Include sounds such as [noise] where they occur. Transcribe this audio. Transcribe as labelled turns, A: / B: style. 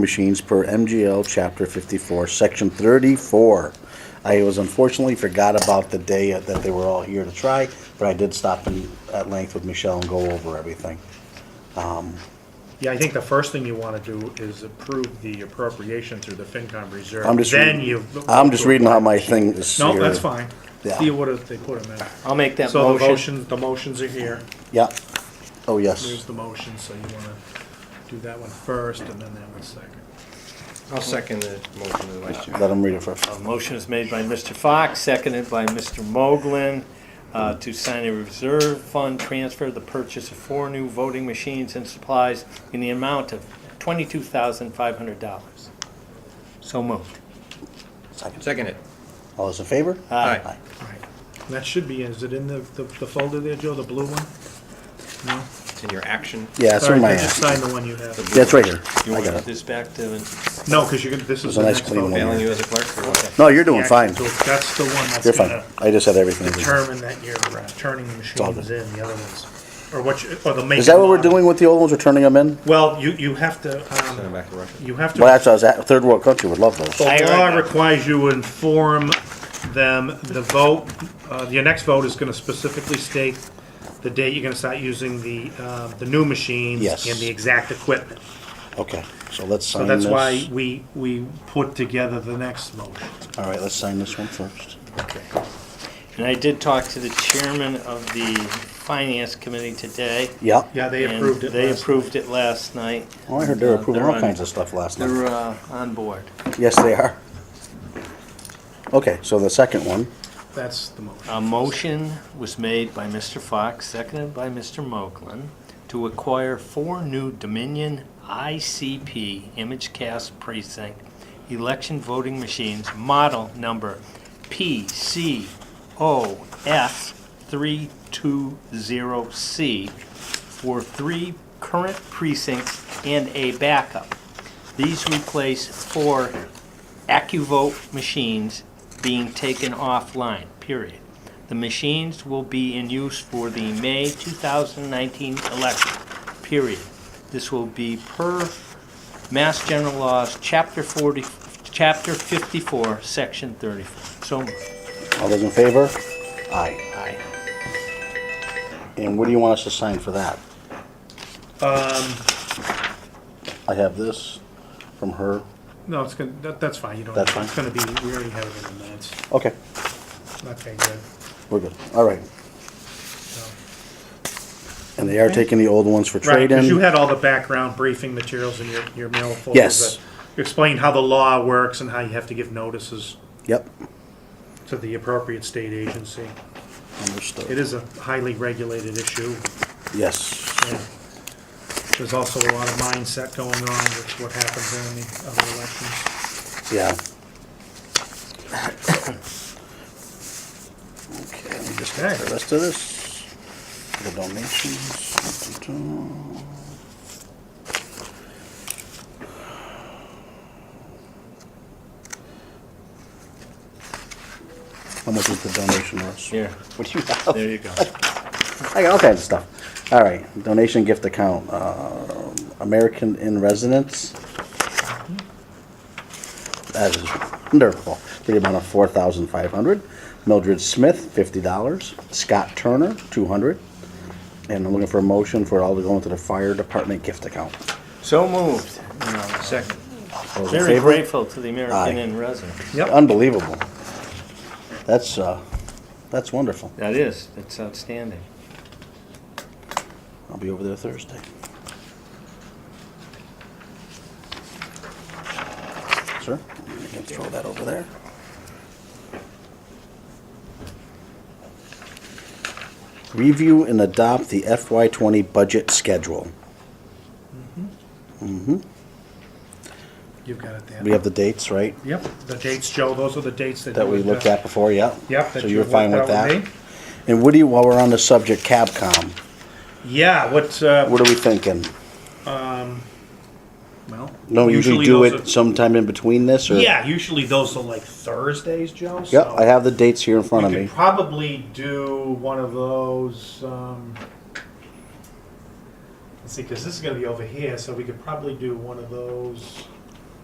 A: machines per MGL Chapter 54, Section 34. I was unfortunately forgot about the day that they were all here to try, but I did stop in at length with Michelle and go over everything.
B: Yeah, I think the first thing you want to do is approve the appropriation through the FinCom reserve.
A: I'm just
B: Then
A: reading-
B: you.
A: I'm just reading how my thing is
B: No,
A: here.
B: that's fine.
A: Yeah.
B: See what it- they put them in.
C: I'll make that
B: So the
C: motion.
B: motion, the motions are here.
A: Yeah. Oh, yes.
B: There's the motion, so you want to do that one first and then that one second.
C: I'll second the motion of the vice chair.
A: Let them read it first.
C: A motion is made by Mr. Fox, seconded by Mr. Moglen, uh, to sign a reserve fund transfer, the purchase of four new voting machines and supplies in the amount of twenty-two thousand five hundred dollars. So moved.
A: Second.
D: Second it.
A: All those in favor?
C: Aye.
B: All right. And That should be, in. is it in the, the the folder there, Joe, the blue one? No?
D: It's in your action.
A: Yeah, it's
B: Sorry,
A: in my
B: I just
A: hand.
B: signed the one you have.
A: That's right here.
C: You
A: I
C: want to
A: got
C: put
A: it.
C: this back to,
B: No, because you're, gonna- this is
A: a
B: the
A: nice
B: next
A: clean
B: folder.
A: one.
D: Failing you as a clerk or what?
A: No, you're doing fine.
B: So That's the one that's
A: You're fine.
B: gonna
A: I just had everything.
B: determine that you're uh, turning the
A: all
B: machines in, the other ones, or what, you- or the make.
A: Is that what we're
B: and model.
A: doing with the old ones? We're turning them in?
B: Well, you, you have to,
D: Send it
B: um,
D: back to Russia.
B: you have to.
A: Well, that's, what I was at, third world country would love those.
C: I
B: The
C: heard
B: law
C: that.
B: requires you inform them, the vote, uh, your next vote is gonna specifically state the date you're gonna start using the, uh, the new machines.
A: Yes.
B: And the exact equipment.
A: Okay, so let's sign
B: So
A: this.
B: that's why we, we put together the next motion.
A: All right, let's sign this one first.
C: and I did talk to the chairman of the finance committee today.
A: Yeah.
B: Yeah, they
C: and
B: approved it
C: They
B: last
C: approved it last night.
A: Oh, I heard they were
C: Uh,
A: approving
C: they're
A: all
C: on-
A: kinds of stuff last night.
C: They're, uh, on board.
A: Yes, they are. Okay, so the second one,
B: That's the motion.
C: A motion was made by Mr. Fox, seconded by Mr. Moglen, to acquire four new Dominion ICP ImageCast precinct election voting machines, model number PCOS320C, for three current precincts and a backup. These replace four AccuVote machines being taken offline, period. The machines will be in use for the May 2019 election, period. This will be per Mass General Laws, Chapter 40, Chapter 54, Section 34. So,
A: all those in favor? Aye.
C: aye.
A: And what do you want us to sign for that?
B: Um,
A: I have this from her.
B: No, it's gonna, that, that's fine, you don't,
A: That's
B: it's
A: fine.
B: gonna be, we already have it in the minutes.
A: Okay,
B: Okay, good.
A: we're good. All right. And they are taking the old ones for
B: Right,
A: trade-in?
B: because you had all the background briefing materials in your, your mail folder.
A: Yes.
B: that Explained how the law works and how you have to give notices
A: Yep,
B: to the appropriate state agency. It
A: understood.
B: is a highly regulated issue.
A: Yes.
B: and There's also a lot of mindset going on with what happens during the other elections.
A: Yeah. [coughs] Okay, let me just get the rest of this. The donations. dun-dun-dun. How much is the donation, Russ?
C: Here,
A: What do you have?
C: there you go.
A: I got all kinds of stuff. All right, donation gift account, um, American in Residence. That is wonderful. The amount of four thousand five hundred. Mildred Smith, fifty dollars. Scott Turner, two hundred. And I'm looking for a motion for it all to go into the fire department gift account.
C: So moved. No, Second.
A: Those in
C: Very
A: favor?
C: grateful to the
A: Aye.
C: American in residence.
A: Unbelievable. That's, uh, that's wonderful.
C: That is, that's outstanding.
A: I'll be over there Thursday. Sir, you can throw that over there. Review and adopt the FY twenty budget schedule.
B: You've got it there.
A: We have the dates, right,
B: Yep, the dates, Joe, those are the dates that.
A: that
B: you
A: we
B: had,
A: looked
B: uh,
A: at before, yeah?
B: Yep.
A: So
B: that
A: you're
B: you
A: fine with
B: worked out
A: that?
B: me.
A: And Woody, while we're on the subject, Capcom,
B: Yeah, what, uh,
A: what are we thinking?
B: well.
A: No, usually do
B: those
A: it
B: are-
A: sometime in between this, or?
B: Yeah, usually those are like Thursdays, Joe,
A: Yep,
B: so.
A: I have the dates here in front of
B: We
A: me.
B: could probably do one of those, um, let's see, because this is gonna be over here, so we could probably do one of those